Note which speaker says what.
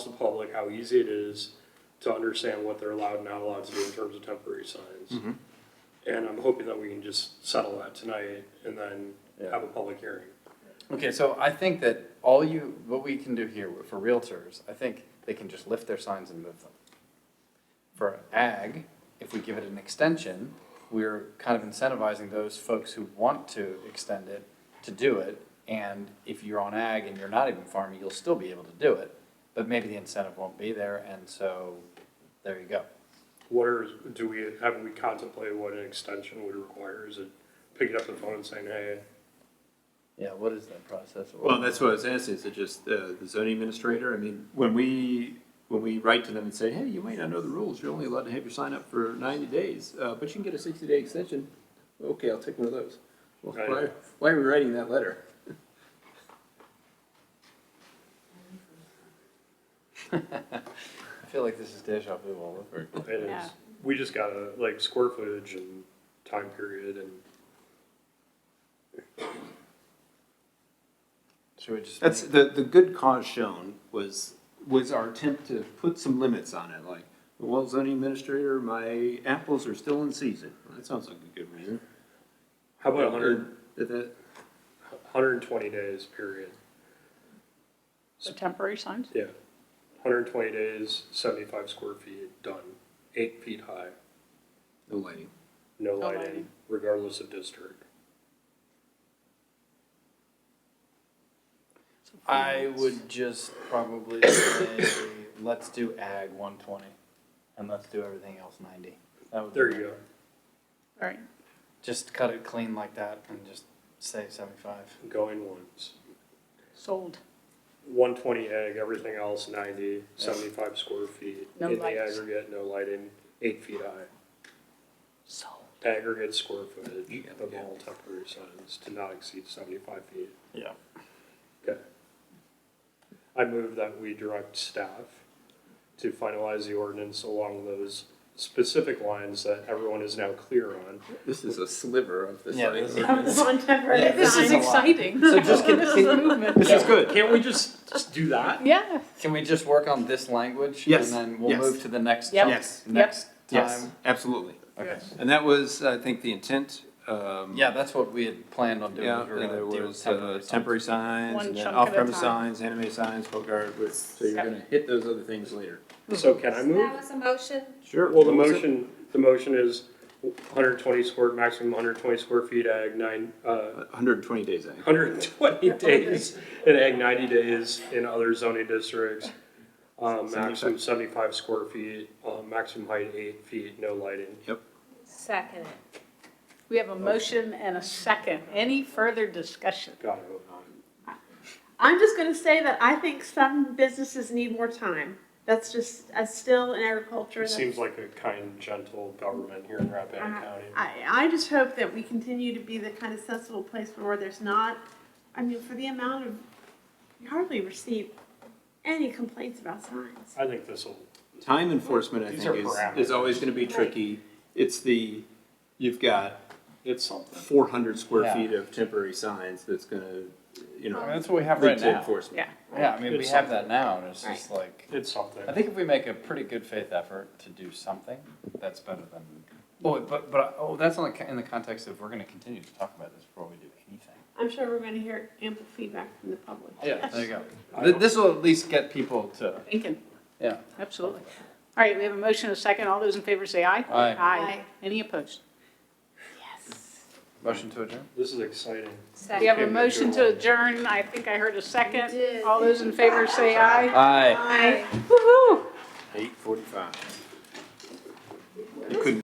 Speaker 1: public how easy it is to understand what they're allowed and not allowed to do in terms of temporary signs. And I'm hoping that we can just settle that tonight and then have a public hearing.
Speaker 2: Okay, so I think that all you, what we can do here for realtors, I think they can just lift their signs and move them. For ag, if we give it an extension, we're kind of incentivizing those folks who want to extend it to do it. And if you're on ag and you're not even farming, you'll still be able to do it, but maybe the incentive won't be there, and so, there you go.
Speaker 1: What are, do we, haven't we contemplated what an extension would require? Is it picking up the phone and saying, hey,
Speaker 2: Yeah, what is that process?
Speaker 3: Well, that's what I was asking, is it just uh, the zoning administrator? I mean, when we, when we write to them and say, hey, you may not know the rules, you're only allowed to have your sign up for ninety days, uh, but you can get a sixty-day extension. Okay, I'll take one of those. Well, why,
Speaker 1: Right.
Speaker 3: why are we writing that letter?
Speaker 2: I feel like this is deja vu all over.
Speaker 1: it is,
Speaker 4: Yeah.
Speaker 1: we just gotta, like, square footage and time period and
Speaker 2: Should we just?
Speaker 3: That's,
Speaker 2: make-
Speaker 3: the, the good cause shown was, was our attempt to put some limits on it, like, well, zoning administrator, my apples are still in season. That sounds like a good reason.
Speaker 1: how about a hundred,
Speaker 3: That- that-
Speaker 1: hundred and twenty days period?
Speaker 4: So temporary signs?
Speaker 1: Yeah, hundred and twenty days, seventy-five square feet, done, eight feet high,
Speaker 3: no lighting.
Speaker 1: no
Speaker 4: No
Speaker 1: lighting,
Speaker 4: lighting.
Speaker 1: regardless of district.
Speaker 2: I would just probably say, let's do ag one twenty, and let's do everything else ninety. That would. be
Speaker 1: There
Speaker 2: my-
Speaker 1: you go,
Speaker 4: All right,
Speaker 2: Just cut it clean like that and just say seventy-five.
Speaker 1: going once.
Speaker 4: sold.
Speaker 1: One twenty egg, everything else 90, 75 square feet.
Speaker 4: No
Speaker 1: In the
Speaker 4: lights.
Speaker 1: aggregate, no lighting, eight feet high.
Speaker 4: Sold.
Speaker 1: Aggregate square footage
Speaker 3: Yeah,
Speaker 1: of
Speaker 3: yeah.
Speaker 1: all temporary signs to not exceed seventy-five feet.
Speaker 2: Yeah.
Speaker 1: Okay. I move that we direct staff to finalize the ordinance along those specific lines that everyone is now clear on.
Speaker 3: This is a sliver of the
Speaker 2: Yeah,
Speaker 3: sign
Speaker 2: this is-
Speaker 3: ordinance.
Speaker 2: Yeah,
Speaker 4: This is
Speaker 2: a lot.
Speaker 4: exciting.
Speaker 2: So just can-
Speaker 4: This is
Speaker 2: can-
Speaker 4: a movement.
Speaker 3: This is good.
Speaker 1: Can't we just, just do that?
Speaker 4: Yeah,
Speaker 2: Can we just work on this language?
Speaker 3: Yes,
Speaker 2: And then we'll
Speaker 3: yes.
Speaker 2: move to the next.
Speaker 4: Yep.
Speaker 2: chunk
Speaker 3: Yes.
Speaker 4: Yep.
Speaker 2: Next
Speaker 3: Yes,
Speaker 2: time.
Speaker 3: absolutely.
Speaker 2: Okay.
Speaker 4: Yes.
Speaker 3: And that was, I think, the intent. um,
Speaker 2: Yeah, that's what we had planned on doing.
Speaker 3: Yeah,
Speaker 2: We were gonna
Speaker 3: there
Speaker 2: deal with
Speaker 3: was uh,
Speaker 2: signs.
Speaker 3: temporary signs,
Speaker 4: One
Speaker 3: and then
Speaker 4: chunk at a
Speaker 3: off-premise
Speaker 4: time.
Speaker 3: signs, anime signs, folk art, which- so you're
Speaker 4: Yep.
Speaker 3: gonna hit those other things later.
Speaker 1: So can I move?
Speaker 5: That was a motion.
Speaker 3: Sure.
Speaker 1: Well, the motion, the motion is hundred twenty square, maximum hundred twenty square feet, ag nine, uh,
Speaker 3: Hundred and twenty days, I think.
Speaker 1: hundred and twenty days, and ag ninety days in other zoning districts. Um, maximum seventy-five square feet, uh, maximum height eight feet, no lighting.
Speaker 3: Yep.
Speaker 5: Second it.
Speaker 4: we have a motion and a second. Any further discussion?
Speaker 1: Got it, hold on.
Speaker 6: I'm just going to say that I think some businesses need more time. That's just uh, still in agriculture.
Speaker 1: It
Speaker 6: that's-
Speaker 1: seems like a kind, gentle government here in Rappahannock County.
Speaker 6: I, I just hope that we continue to be the kind of sensible place where there's not, I mean, for the amount of, you hardly receive any complaints about signs.
Speaker 1: I think this'll,
Speaker 3: Time enforcement, I
Speaker 1: These
Speaker 3: think,
Speaker 1: are
Speaker 3: is,
Speaker 1: parameters.
Speaker 3: is always gonna be tricky. It's the, you've got
Speaker 1: it's something.
Speaker 3: four hundred square
Speaker 2: Yeah.
Speaker 3: feet of temporary signs that's gonna, you
Speaker 2: I mean,
Speaker 3: know,
Speaker 2: That's what we have
Speaker 3: lead
Speaker 2: right
Speaker 3: to
Speaker 2: now.
Speaker 3: enforcement.
Speaker 2: Yeah, I mean, we
Speaker 1: It's
Speaker 2: have that now and it's just like.
Speaker 1: It's something.
Speaker 2: I think if we make a pretty good faith effort to do something, that's better than. Oh, but, but, oh, that's on the, in the context of we're gonna continue to talk about this before we do anything.
Speaker 6: I'm sure we're going to hear ample feedback from the public.
Speaker 2: Yeah, there you go.
Speaker 1: I
Speaker 2: Th-
Speaker 1: don't-
Speaker 2: This will at least get people to,
Speaker 4: Thinking,
Speaker 2: yeah.
Speaker 4: absolutely. All right, we have a motion and a second. All those in favor say aye.
Speaker 2: Aye.
Speaker 4: Aye. Any opposed?
Speaker 2: Motion to adjourn?
Speaker 1: This is exciting.
Speaker 4: We have
Speaker 5: Second.
Speaker 4: a
Speaker 1: Okay,
Speaker 4: motion to
Speaker 1: good.
Speaker 4: adjourn. I think I heard a second.
Speaker 5: did.
Speaker 4: All those in favor say aye.
Speaker 2: Aye.
Speaker 4: Woo-hoo.
Speaker 3: Eight forty-five. I couldn't